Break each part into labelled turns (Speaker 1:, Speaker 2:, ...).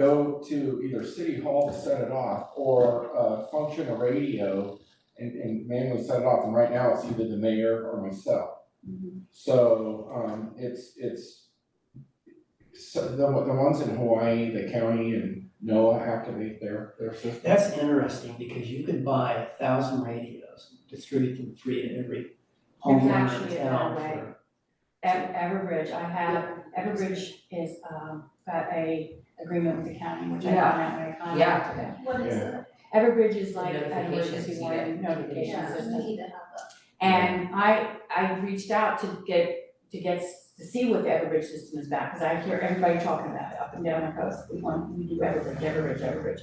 Speaker 1: go to either city hall to set it off or uh function a radio and and manually set it off, and right now it's either the mayor or myself.
Speaker 2: Mm-hmm.
Speaker 1: So um it's it's so the the ones in Hawaii, the county and NOAA activate their their system.
Speaker 3: That's interesting, because you could buy a thousand radios, distribute them free to every homeowner in
Speaker 2: actually a
Speaker 3: town
Speaker 2: good way.
Speaker 3: for-
Speaker 2: At Everbridge, I have, Everbridge is, um, got a agreement with the county, which I found out when I contacted them.
Speaker 4: What is it?
Speaker 2: Everbridge is like an
Speaker 5: Notifications,
Speaker 2: emergency
Speaker 5: you
Speaker 2: warning
Speaker 5: get-
Speaker 2: notification
Speaker 4: Yeah, we
Speaker 2: system.
Speaker 4: need to have that.
Speaker 2: And I, I reached out to get, to get, s- to see what the Everbridge system is about, cause I hear everybody talking about it up and down the coast. We want, we do Everbridge, Everbridge, Everbridge.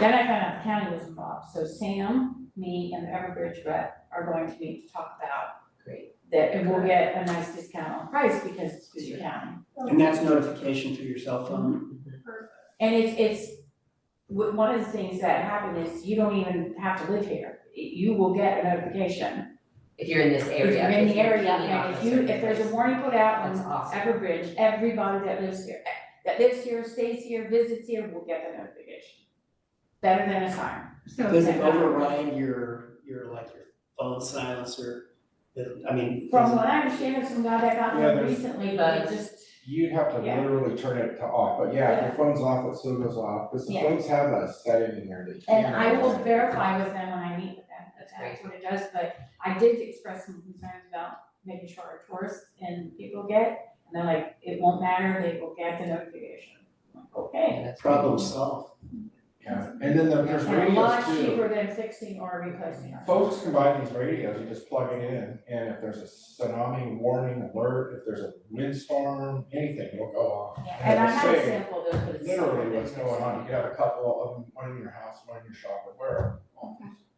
Speaker 2: Then I found out the county was involved, so Sam, me and the Everbridge rep are going to meet to talk about
Speaker 5: Great.
Speaker 2: that, and we'll get a nice discount on price because it's through the county.
Speaker 3: And that's notification through your cell
Speaker 2: Mm-hmm.
Speaker 3: phone,
Speaker 2: And it's, it's, wh- one of the things that happen is you don't even have to live here. You will get a notification.
Speaker 5: If you're in this
Speaker 2: If
Speaker 5: area.
Speaker 2: you're in the area,
Speaker 5: peeing
Speaker 2: and
Speaker 5: off
Speaker 2: if
Speaker 5: a
Speaker 2: you,
Speaker 5: certain
Speaker 2: if there's a
Speaker 5: place.
Speaker 2: warning put out
Speaker 5: That's
Speaker 2: on
Speaker 5: awesome.
Speaker 2: Everbridge, everybody that lives here, eh, that lives here, stays here, visits here, will get the notification. Better than a sign.
Speaker 3: does it override your, your, like, your phone silencer? The- I mean.
Speaker 2: From what I understand, it's some guy that got
Speaker 1: Yeah,
Speaker 2: one
Speaker 1: there's-
Speaker 2: recently, but
Speaker 5: But-
Speaker 2: it just,
Speaker 1: You'd have to
Speaker 2: Yeah.
Speaker 1: literally turn it to off, but yeah, if your phone's off, it still goes off, because the
Speaker 2: Yeah.
Speaker 1: phones have that setting in there that you can't.
Speaker 2: and I will verify with them when I meet with them, that
Speaker 5: That's
Speaker 2: that's what it does, but I did express some concerns about making sure our tourists and people get, and they're like, it won't matter, they will get the notification. I'm like, Okay,
Speaker 5: Yeah, that's great.
Speaker 3: Problem solved.
Speaker 1: Yeah, and then there- there's
Speaker 2: and a lot
Speaker 1: radios too,
Speaker 2: cheaper than fixing or replacing our.
Speaker 1: folks can buy these radios, you just plug it in, and if there's a tsunami warning alert, if there's a windstorm, anything, it'll go off.
Speaker 2: And I
Speaker 1: it'll
Speaker 2: had a
Speaker 1: say
Speaker 2: sample of those, but it's.
Speaker 1: Literally what's going on, you can have a couple of them, one in your house, one in your shop, or wherever.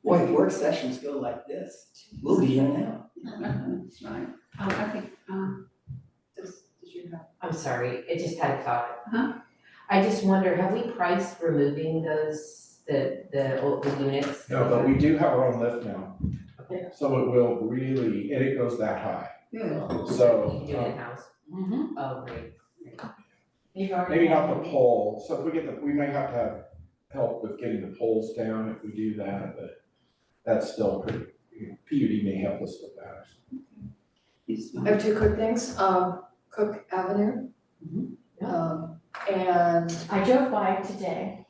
Speaker 3: Boy, work sessions go like this, we'll be here now. Right.
Speaker 6: Oh, I think, um, does, did you have?
Speaker 5: I'm sorry, it just had a thought.
Speaker 6: Uh-huh.
Speaker 5: I just wonder, have we priced removing those, the, the old the units?
Speaker 1: No, but we do have our own lift now.
Speaker 5: Okay.
Speaker 1: So it will really, and it goes that high,
Speaker 6: Yeah.
Speaker 1: so.
Speaker 5: You can do it
Speaker 1: um,
Speaker 5: in-house,
Speaker 2: Mm-hmm.
Speaker 5: oh, great, great.
Speaker 2: You've already.
Speaker 1: Maybe not the pole, so if we get the, we may have to have help with getting the poles down if we do that, but that's still pretty, PUD may help us with that.
Speaker 6: It's
Speaker 7: I
Speaker 6: my-
Speaker 7: have two quick things, um, Cook Avenue.
Speaker 2: Mhm.
Speaker 7: Um, and
Speaker 2: I drove by today,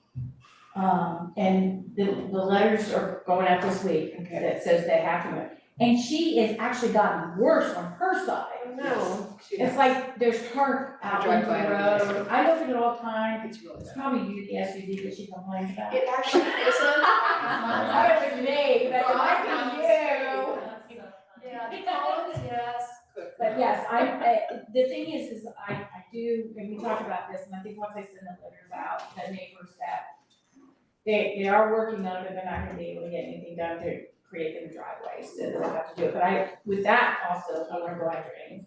Speaker 2: um, and the, the letters are going out this week that says they have to move. And she has actually gotten worse on her side.
Speaker 7: no,
Speaker 2: It's like there's tarp out
Speaker 7: I
Speaker 2: on
Speaker 7: drive
Speaker 2: the
Speaker 7: by every day.
Speaker 2: road. I look at it all the time.
Speaker 7: it's really
Speaker 2: It's
Speaker 7: bad.
Speaker 2: probably you, the SUV that she complains about.
Speaker 7: It actually isn't.
Speaker 2: Sorry for me, but it might be you.
Speaker 7: Yeah, the Collins, yes, Cook.
Speaker 2: But yes, I, I- the thing is, is I, I do, and we talked about this, and I think once I send the letters out, the neighbors that they, they are working on it, but they're not gonna be able to get anything done to create them driveways, so they'll have to do it, but I, with that also, I wanna go after it.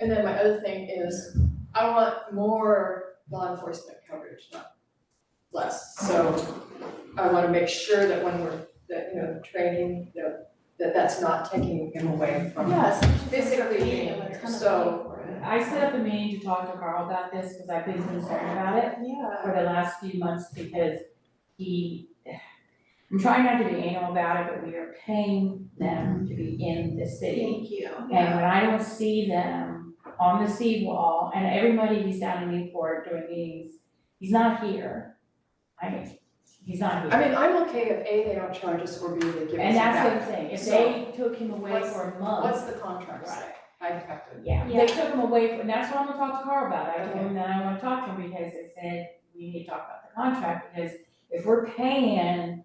Speaker 7: And then my other thing is, I want more law enforcement coverage, not less. So I wanna make sure that when we're, that, you know, training, you know, that that's not taking him away from.
Speaker 4: Yes.
Speaker 7: Physically being
Speaker 4: A ton of
Speaker 7: so-
Speaker 4: money
Speaker 2: I set up a meeting to talk to Carl about this, cause I've been concerned about it,
Speaker 7: Yeah.
Speaker 2: for the last few months because he, I'm trying not to be anal about it, but we are paying them to be in the
Speaker 4: for it.
Speaker 2: city.
Speaker 4: Thank you.
Speaker 2: And when I don't see them on the seawall, and everybody he's down in Newport doing meetings, he's not here. I mean, he's not here.
Speaker 7: I mean, I'm okay if A, they don't charge us, or B, they give
Speaker 2: And
Speaker 7: us it
Speaker 2: that's
Speaker 7: back.
Speaker 2: the thing, if they took him away
Speaker 7: What's-
Speaker 2: for a
Speaker 7: What's
Speaker 2: month,
Speaker 7: the contract say? I have to.
Speaker 2: yeah,
Speaker 4: Yeah.
Speaker 2: they took him away for, and that's what I'm gonna talk to Carl about, I told him that I wanna talk to him because I said, we need to talk about the contract, because if we're paying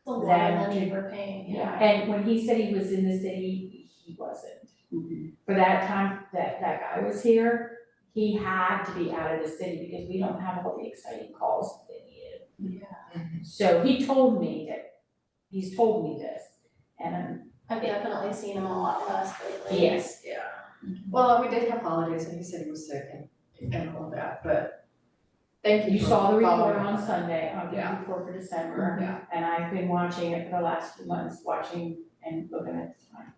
Speaker 4: It's a lot
Speaker 2: Then
Speaker 4: of money
Speaker 2: you-
Speaker 4: we're paying,
Speaker 2: Yeah,
Speaker 4: yeah.
Speaker 2: and when he said he was in the city, he wasn't. For that time that that guy was here, he had to be out of the city because we don't have all the exciting calls that he did. So he told me that, he's told me this, and I'm,
Speaker 4: I've definitely seen him a lot less lately.
Speaker 2: yes,
Speaker 7: Yeah. Well, we did have holidays and he said he was sick and, and all that, but thank you
Speaker 2: you
Speaker 7: for
Speaker 2: saw the report
Speaker 7: following
Speaker 2: on
Speaker 7: up.
Speaker 2: Sunday, on the
Speaker 7: Yeah.
Speaker 2: report for December.
Speaker 7: Yeah.
Speaker 2: And I've been watching it for the last few months, watching and looking at the time.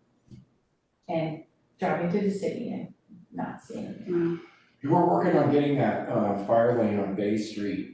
Speaker 2: And driving through the city and not seeing it.
Speaker 1: We're working on getting that, uh, fire lane on Bay Street